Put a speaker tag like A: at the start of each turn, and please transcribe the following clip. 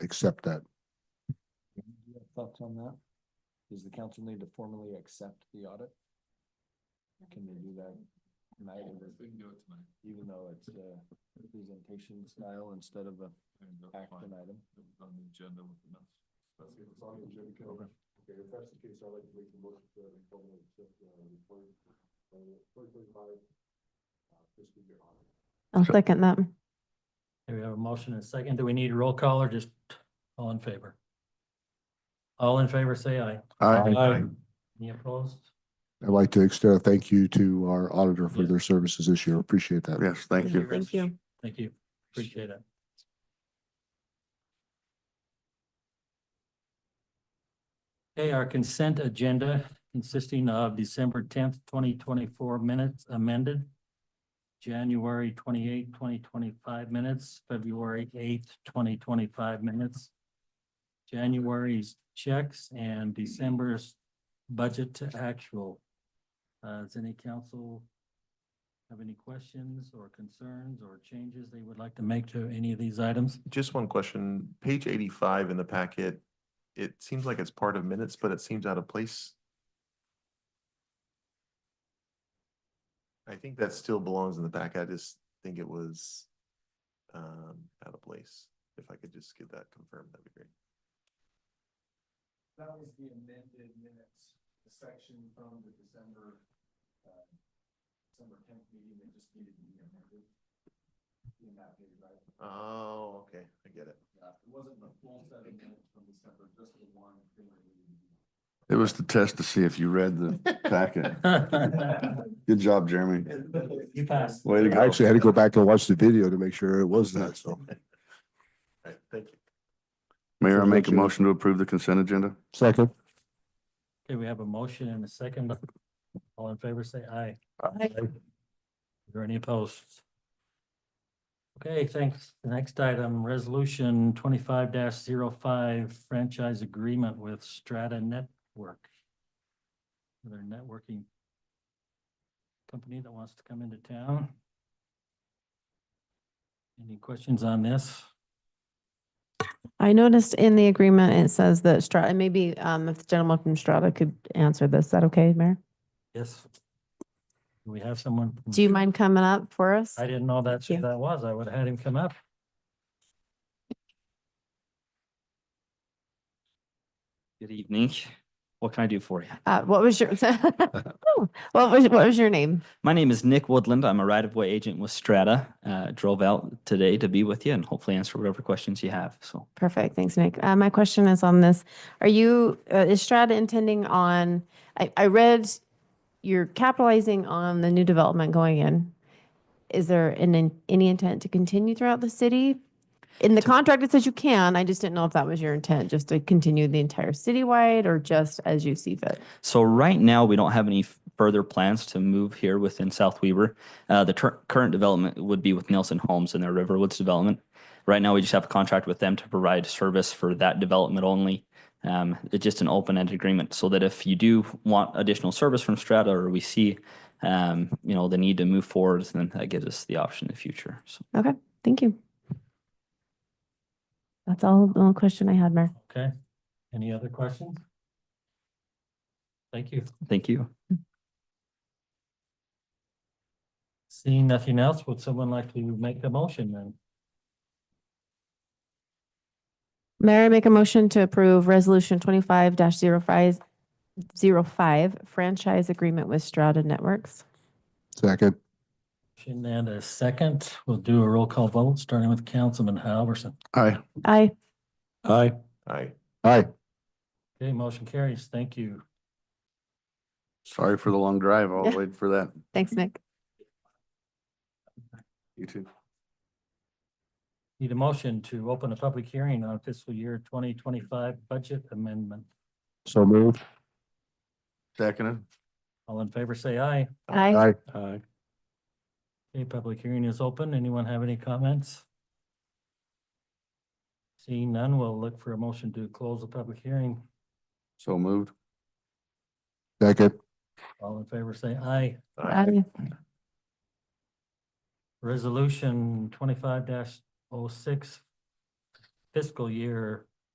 A: accept that.
B: Do you have Thoughts on that? Does the council need to formally accept the audit? Can they do that tonight? We can do it tonight. Even though it's a presentation style instead of a action item? On the agenda with enough.
C: Okay, if that's the case, I'd like to make a motion to formally accept the report, uh, twenty twenty-five uh, fiscal year audit.
D: I'll second that.
E: Okay, we have a motion and a second. Do we need a roll call or just all in favor? All in favor, say aye.
A: I,
E: Any opposed?
A: I'd like to extend a thank you to our auditor for their services this year. Appreciate that.
F: Yes, thank you.
D: Thank you.
E: Thank you. Appreciate it. Okay, our consent agenda consisting of December tenth, twenty twenty-four minutes amended. January 28th, 2025 minutes, February eighth, twenty twenty-five minutes. January's checks and December's budget to actual. Uh, does any council have any questions or concerns or changes they would like to make to any of these items?
F: Just one question, page eighty-five in the packet, it seems like it's part of minutes, but it seems out of place. I think that still belongs in the back. I just think it was um out of place. If I could just get that confirmed, that'd be great.
B: That was the amended minutes, the section from the December, uh, December tenth meeting that just needed to be amended. In that day, right?
F: Oh, okay, I get it.
B: Yeah, it wasn't the full set of minutes from December, just the one.
G: It was to test to see if you read the packet. Good job, Jeremy.
E: You passed.
G: Way to
A: I actually had to go back and watch the video to make sure it was that, so.
F: All right, thank you.
G: Mayor, I make a motion to approve the consent agenda.
A: Second.
E: Okay, we have a motion and a second. All in favor, say aye.
D: Aye.
E: Is there any opposed? Okay, thanks. The next item, resolution twenty-five 5 franchise agreement with Strata Network. Their networking company that wants to come into town. Any questions on this?
D: I noticed in the agreement, it says that Strata, and maybe um, if the gentleman from Strata could answer this, is that okay, Mayor?
E: Yes. Do we have someone? from
D: Do you
E: Strata?
F: Mm-hmm.
D: mind coming up for us?
E: I didn't know that's
D: Thank
E: who
D: you.
E: that was. I would have had him come up.
H: Good evening. What can I do for you?
D: Uh, What was your, Oh, what was, what was your name?
H: My name is Nick Woodland. I'm a right of way agent with Strata. Uh, drove out today to be with you and hopefully answer whatever questions you have. So
D: Perfect, thanks, Nick. Uh, My question is on this. Are you, uh, is Strata intending on, I, I read you're capitalizing on the new development going in. Is there an, in- any intent to continue throughout the city? In the contract, it says you can. I just didn't know if that was your intent, just to continue the entire citywide or just as you see fit.
H: So right now, we don't have any f- further plans to move here within South Weaver. Uh, the tur- current development would be with Nelson Homes and their Riverwoods development. Right now, we just have a contract with them to provide service for that development only. Um, it's just an open-ended agreement so that if you do want additional service from Strata or we see, um, you know, the need to move forward, then that gives us the option in the future. So.
D: Okay, thank you. That's all, the only question I had, Mayor.
E: Okay, any other questions? Thank you.
H: Thank you.
E: Seeing nothing else, would someone like to make a motion then?
D: Mayor, I make a motion to approve Resolution twenty-five 5 franchise agreement with Strata Networks.
A: Second.
E: Motion And a second, we'll do a roll call vote, starting with Councilman Halverson.
G: Aye.
D: Aye.
E: Aye.
F: All right.
A: Aye.
E: Okay, motion carries. Thank you.
G: Sorry for the long drive. I'll wait for that.
D: Thanks, Nick.
G: You too.
E: Need a motion to open a public hearing on fiscal year twenty twenty-five budget amendment.
A: So moved.
G: Seconded.
E: All in favor, say aye.
D: Aye.
A: Aye.
E: Aye. Okay, public hearing is open. Anyone have any comments? Seeing none, we'll look for a motion to close the public hearing.
G: So moved.
A: Second.
E: All in favor, say aye.
F: All
D: Aye.
F: right.
E: Resolution twenty-five 6 oh fiscal year